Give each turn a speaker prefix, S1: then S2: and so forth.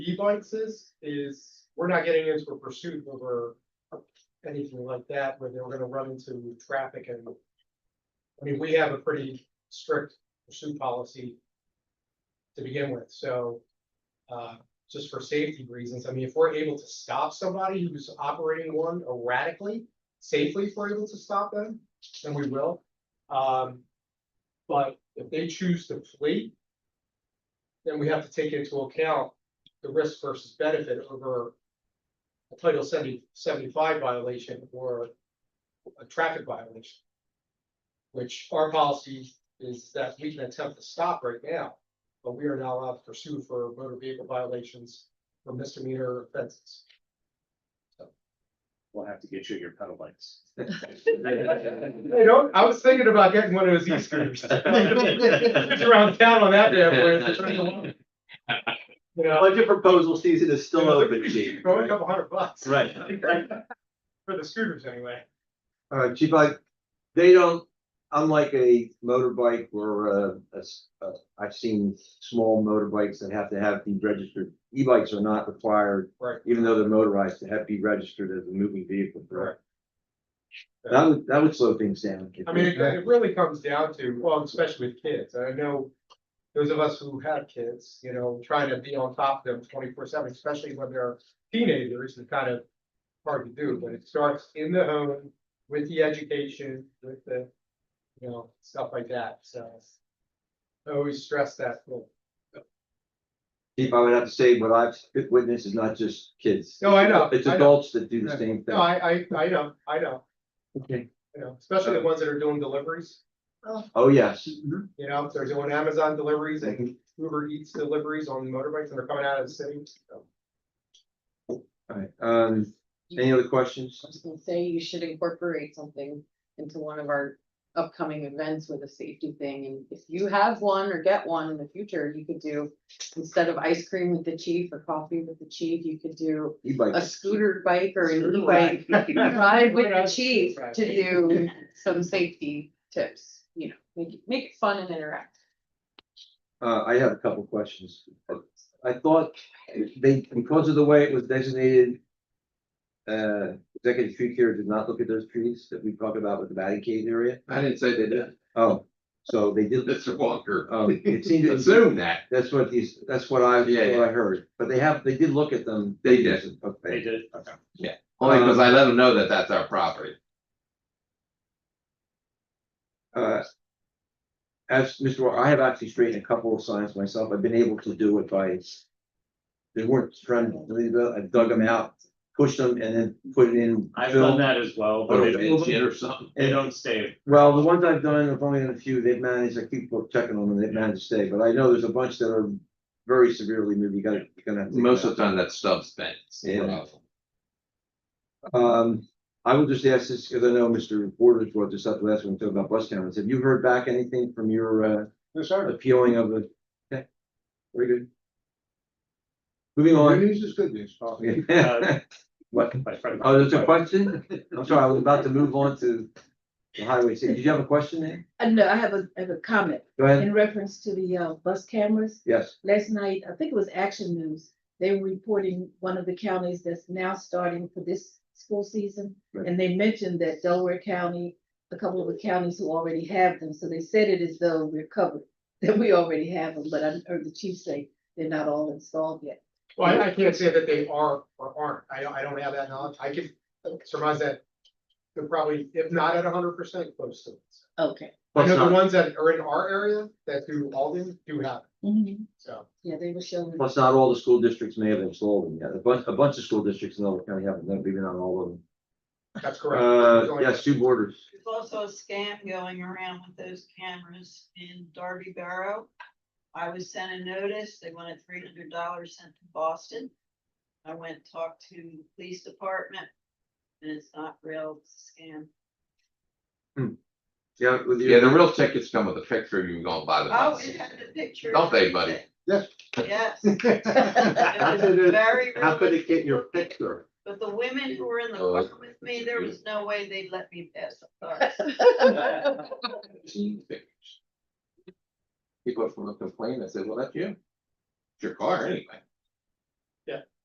S1: E-bikes is, is, we're not getting into a pursuit over anything like that, where they're gonna run into traffic and. I mean, we have a pretty strict pursuit policy to begin with, so, uh, just for safety reasons, I mean, if we're able to stop somebody who's operating one erratically, safely, if we're able to stop them, then we will. Um, but if they choose to flee, then we have to take into account the risk versus benefit over a Title 70 75 violation or a traffic violation. Which our policy is that we can attempt to stop right now, but we are not allowed to pursue for motor vehicle violations or misdemeanor offenses.
S2: We'll have to get you your pedal bikes.
S1: I don't, I was thinking about getting one of those e-scooters. It's around town on that damn place, it's right along. You know,
S2: Budget proposal season is still open, Chief.
S1: going a couple hundred bucks.
S2: Right.
S1: For the scooters anyway.
S3: All right, Chief, I, they don't, unlike a motorbike or a, a s- a- I've seen small motorbikes that have to have be registered. E-bikes are not required.
S1: Right.
S3: Even though they're motorized, to have be registered as a moving vehicle, correct?
S1: Correct.
S3: That would, that would slow things down.
S1: I mean, it, it really comes down to, well, especially with kids, I know. Those of us who have kids, you know, trying to be on top of them twenty four seven, especially when they're teenagers, is kind of. Hard to do, but it starts in the home with the education, with the, you know, stuff like that, so. I always stress that, point.
S3: Chief, I would have to say, what I've witnessed is not just kids.
S1: No, I know,
S3: It's
S1: I know.
S3: adults that do the same
S1: no,
S3: thing.
S1: I, I, I know, I know,
S3: Okay.
S1: you know, especially the ones that are doing deliveries.
S3: Oh, yes.
S1: You know, they're doing Amazon deliveries and Uber Eats deliveries on motorbikes and they're coming out of the city, so.
S3: All right, um, any other questions?
S4: I was gonna say you should incorporate something into one of our upcoming events with a safety thing, and if you have one or get one in the future, you could do. Instead of ice cream with the chief or coffee with the chief, you could do a
S3: E-bikes.
S4: scooter bike or an
S1: Scooter
S4: e-bike ride with
S1: Right.
S4: the chief to do some safety tips, you know, make, it- make it fun and interactive.
S3: Uh, I have a couple questions. I thought they, because of the way it was designated. Uh, executive tree care did not look at those trees that we talked about with the batting cage area.
S5: I didn't say they did,
S3: Oh, so they did,
S5: Mr. Walker.
S3: um, it seemed, to-
S5: Assume that,
S3: that's what these, that's what I,
S5: Yeah,
S3: what I heard, but they have, they did look at them.
S5: They did.
S2: They
S3: Okay,
S2: did.
S5: only because I let them know that that's our property.
S3: uh. As Mr. Wa- I have actually straightened a couple of signs myself. I've been able to do it by. They weren't trying to leave it. I dug them out, pushed them and then put it in.
S2: I've
S3: fill.
S2: done that as well,
S3: Oh,
S2: but
S3: yeah.
S2: it-
S5: It's it or something.
S2: they don't stay.
S3: Well, the ones I've done, I've only done a few, they've managed, I keep checking on them, they've managed to stay, but I know there's a bunch that are very severely moved, you gotta, you're gonna. have to take
S5: Most
S3: them
S5: of the time that stuff's bent.
S3: Yeah. out. Um, I will just ask this, because I know Mr. Borders brought this up last when we talked about bus cameras, have you heard back anything from your,
S1: Yes,
S3: uh,
S1: sir.
S3: appealing of the? Okay, very good. Moving on.
S1: news is good news.
S3: What,
S2: My friend-
S3: oh, there's a question? I'm sorry, I was about to move on to the highway, safety. did you have a question there?
S6: Uh, no, I have a, I have a comment
S3: Go ahead,
S6: in reference to the, uh, bus cameras.
S3: yes,
S6: Last night, I think it was Action News, they were reporting one of the counties that's now starting for this school season.
S3: Right.
S6: And they mentioned that Delaware County, a couple of the counties who already have them, so they said it as though we're covered, that we already have them, but I heard the chief say they're not all installed yet.
S1: Well, I- I can't say that they are or aren't. I don't, I don't have that knowledge. I could surmise that. They're probably, if not at hundred percent, close to it.
S6: Okay.
S1: I
S3: Well, it's
S1: know the
S3: not-
S1: ones that are in our area that do Alden do have, it, so.
S6: Yeah, they were showing.
S3: Plus, not all the school districts may have installed them yet. A bunch, a bunch of school districts in Delaware County haven't, maybe not all of them.
S1: That's correct. There's
S3: Uh,
S1: only-
S3: yes, two borders.
S7: There's also a scam going around with those cameras in Darby Borough. I was sent a notice, they wanted three hundred dollars sent to Boston. I went and talked to the police department, and it's not real, it's a scam.
S3: Yeah, with
S5: Yeah, the
S3: you.
S5: real tickets come with a picture, you can go and buy them.
S7: Oh, it had the picture.
S5: Don't they, buddy?
S3: Yes.
S7: Yes.
S3: How could
S7: It was
S3: it-
S7: very
S3: How could it
S7: realistic
S3: get your
S7: looking.
S3: picture?
S7: But the women who were in the
S5: Oh,
S7: car with me, there was no way they'd let me pass the car.
S5: People from the complaint, I said, well, that's you. It's your car anyway.